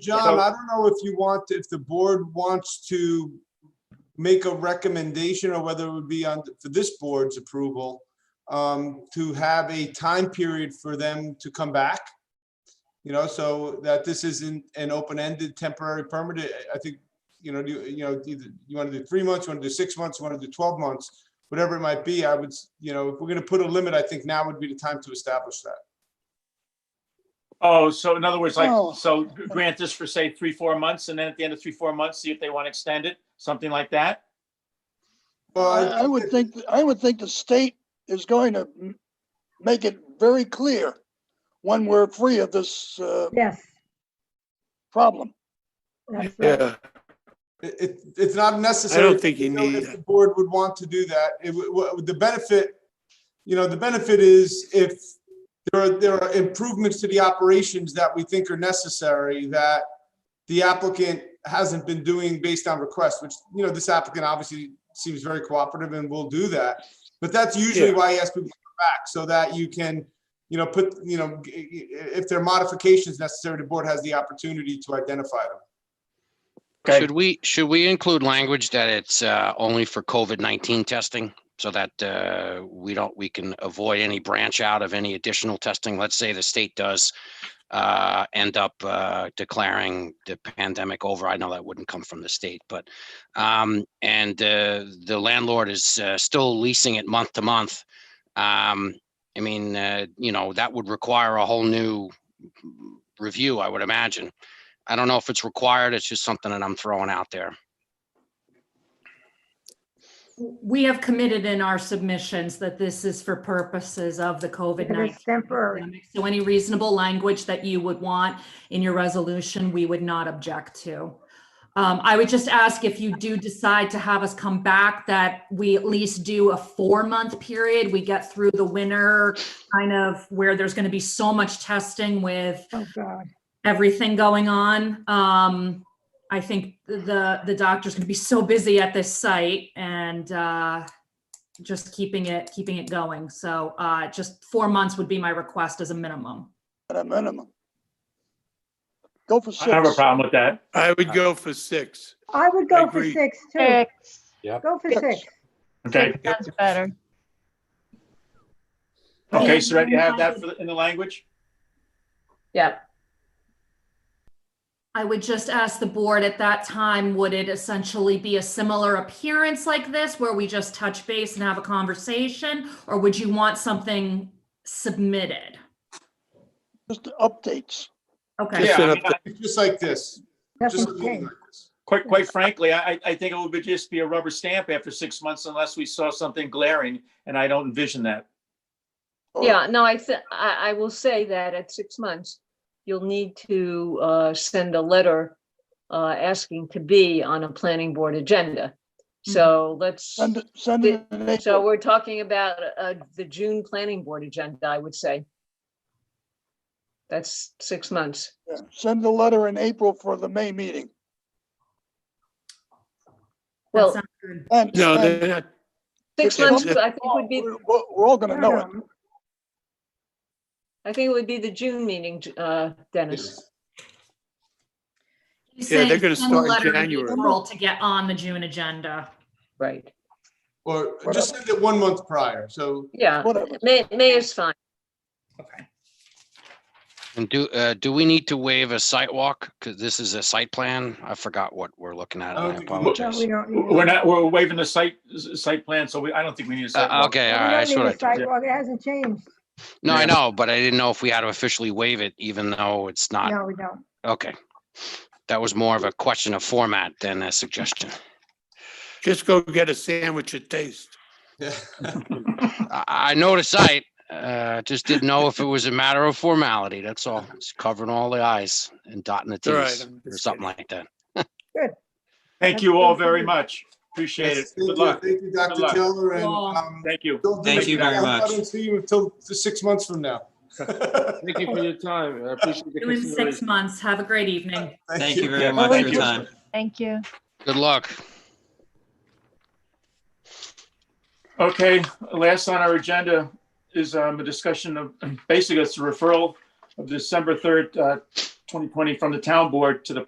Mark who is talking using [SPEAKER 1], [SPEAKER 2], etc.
[SPEAKER 1] John, I don't know if you want, if the board wants to make a recommendation or whether it would be on, for this board's approval, um, to have a time period for them to come back. You know, so that this isn't an open-ended temporary permit. I- I think, you know, you, you know, either you want to do three months, you want to do six months, you want to do twelve months, whatever it might be, I would, s- you know, if we're gonna put a limit, I think now would be the time to establish that.
[SPEAKER 2] Oh, so in other words, like,
[SPEAKER 3] Oh.
[SPEAKER 2] so grant this for say three, four months, and then at the end of three, four months, see if they want to extend it, something like that?
[SPEAKER 1] Well,
[SPEAKER 3] I I would think, I would think the state is going to m- make it very clear when we're free of this uh,
[SPEAKER 4] Yes.
[SPEAKER 3] problem.
[SPEAKER 4] that's right.
[SPEAKER 5] Yeah,
[SPEAKER 1] It, it- it's not necessary.
[SPEAKER 5] I don't think you
[SPEAKER 1] know,
[SPEAKER 5] need
[SPEAKER 1] if
[SPEAKER 5] it.
[SPEAKER 1] the Board would want to do that. It, w- w- the benefit, you know, the benefit is if there are, there are improvements to the operations that we think are necessary that the applicant hasn't been doing based on request, which, you know, this applicant obviously seems very cooperative and will do that. But that's usually
[SPEAKER 5] Yeah.
[SPEAKER 1] why I ask people to come back, so that you can, you know, put, you know, g- i- i- if there are modifications necessary, the board has the opportunity to identify them.
[SPEAKER 2] Okay.
[SPEAKER 6] Should we, should we include language that it's uh, only for COVID-19 testing? So that uh, we don't, we can avoid any branch out of any additional testing? Let's say the state does uh, end up uh, declaring the pandemic over. I know that wouldn't come from the state, but um, and uh, the landlord is uh, still leasing it month to month. Um, I mean, uh, you know, that would require a whole new review, I would imagine. I don't know if it's required. It's just something that I'm throwing out there.
[SPEAKER 7] We have committed in our submissions that this is for purposes of the
[SPEAKER 4] It
[SPEAKER 7] COVID-19.
[SPEAKER 4] is temporary.
[SPEAKER 7] pandemic. So any reasonable language that you would want in your resolution, we would not object to. Um, I would just ask if you do decide to have us come back, that we at least do a four-month period. We get through the winter, kind of where there's going to be so much testing with
[SPEAKER 4] Oh, God.
[SPEAKER 7] everything going on. Um, I think the, the doctor's gonna be so busy at this site and, uh, just keeping it, keeping it going. So, uh, just four months would be my request as a minimum.
[SPEAKER 3] at a minimum. Go for
[SPEAKER 2] I don't have a
[SPEAKER 3] six.
[SPEAKER 2] problem with that.
[SPEAKER 5] I would go for six.
[SPEAKER 4] I would go for
[SPEAKER 5] agree.
[SPEAKER 4] six too.
[SPEAKER 8] Six.
[SPEAKER 4] Go for
[SPEAKER 3] Six.
[SPEAKER 4] six.
[SPEAKER 2] Okay,
[SPEAKER 8] Six sounds better.
[SPEAKER 2] okay, so you have that for the- in the language?
[SPEAKER 8] Yep.
[SPEAKER 7] I would just ask the board at that time, would it essentially be a similar appearance like this where we just touch base and have a conversation? Or would you want something submitted?
[SPEAKER 3] Just updates.
[SPEAKER 7] Okay,
[SPEAKER 2] Yeah,
[SPEAKER 5] Just
[SPEAKER 2] I
[SPEAKER 5] an
[SPEAKER 2] mean, I-
[SPEAKER 1] It's Just like this. Just
[SPEAKER 4] Nothing
[SPEAKER 1] like
[SPEAKER 4] changed.
[SPEAKER 1] this.
[SPEAKER 2] quite, quite frankly, I, I- I think it would just be a rubber stamp after six months unless we saw something glaring, and I don't envision that.
[SPEAKER 3] or-
[SPEAKER 8] Yeah, no, I, thi- I, I will say that at six months, you'll need to uh, send a letter uh, asking to be on a planning board agenda. So let's,
[SPEAKER 3] Send it, send it. in
[SPEAKER 8] so
[SPEAKER 3] April.
[SPEAKER 8] we're talking about uh, the June planning board agenda, I would say. That's six months.
[SPEAKER 3] Yeah, Send the letter in April for the May meeting.
[SPEAKER 7] that
[SPEAKER 8] Well,
[SPEAKER 7] sounds good.
[SPEAKER 3] And,
[SPEAKER 5] No,
[SPEAKER 3] and
[SPEAKER 5] they're not,
[SPEAKER 8] six
[SPEAKER 3] if- if-
[SPEAKER 8] months, I think would be,
[SPEAKER 3] we're, we're- we're all gonna
[SPEAKER 4] No,
[SPEAKER 3] know it.
[SPEAKER 4] no,
[SPEAKER 8] I think it would be the June meeting, uh, Dennis.
[SPEAKER 7] He's
[SPEAKER 5] Yeah, they're
[SPEAKER 7] saying
[SPEAKER 5] gonna
[SPEAKER 7] send the
[SPEAKER 5] start in
[SPEAKER 7] letter
[SPEAKER 5] January.
[SPEAKER 7] April To get on the June agenda.
[SPEAKER 8] Right,
[SPEAKER 1] Or just send it one month prior, so.
[SPEAKER 8] yeah.
[SPEAKER 3] Whatever.
[SPEAKER 8] May, May is fine.
[SPEAKER 6] And do, uh, do we need to waive a site walk? Because this is a site plan. I forgot what we're looking at.
[SPEAKER 1] I don't
[SPEAKER 6] and I
[SPEAKER 1] think we looked
[SPEAKER 4] No,
[SPEAKER 6] apologize.
[SPEAKER 4] we don't need. it.
[SPEAKER 2] We're not, we're waiving the site, site plan, so we, I don't think we need a site.
[SPEAKER 6] Uh,
[SPEAKER 2] walk.
[SPEAKER 6] okay,
[SPEAKER 4] We
[SPEAKER 6] all right. I
[SPEAKER 4] don't need
[SPEAKER 6] sort
[SPEAKER 4] a
[SPEAKER 6] of,
[SPEAKER 4] sidewalk. It hasn't changed.
[SPEAKER 6] no, I
[SPEAKER 2] Yeah.
[SPEAKER 6] know, but I didn't know if we had to officially waive it, even though it's not.
[SPEAKER 4] No, we don't.
[SPEAKER 6] Okay. That was more of a question of format than a suggestion.
[SPEAKER 5] just go get a sandwich at Taste.
[SPEAKER 1] Yeah.
[SPEAKER 6] I, I know the site, uh, just didn't know if it was a matter of formality. That's all. It's covering all the i's and dotting the
[SPEAKER 5] It's all right,
[SPEAKER 6] t's
[SPEAKER 5] I'm
[SPEAKER 6] or
[SPEAKER 5] just
[SPEAKER 6] something like that.
[SPEAKER 2] Thank you all very much. Appreciate it.
[SPEAKER 1] Yes, Thank
[SPEAKER 2] Good
[SPEAKER 1] you,
[SPEAKER 2] luck.
[SPEAKER 1] thank you,
[SPEAKER 2] Good
[SPEAKER 1] Dr.
[SPEAKER 2] luck.
[SPEAKER 1] Taylor, and,
[SPEAKER 7] Well,
[SPEAKER 1] um,
[SPEAKER 2] Thank you.
[SPEAKER 1] don't do
[SPEAKER 9] Thank
[SPEAKER 1] it
[SPEAKER 9] you very
[SPEAKER 1] now. I
[SPEAKER 9] much.
[SPEAKER 1] don't see you until six months from now.
[SPEAKER 10] Thank you for your time. I appreciate the
[SPEAKER 7] Do in six
[SPEAKER 10] consideration.
[SPEAKER 7] months. Have a great evening.
[SPEAKER 9] Thank you very
[SPEAKER 2] Yeah,
[SPEAKER 9] much for
[SPEAKER 2] thank
[SPEAKER 9] your
[SPEAKER 2] you.
[SPEAKER 9] time.
[SPEAKER 8] Thank you.
[SPEAKER 6] Good luck.
[SPEAKER 2] Okay, last on our agenda is um, a discussion of, basically it's a referral of December 3rd, uh, 2020 from the town board to the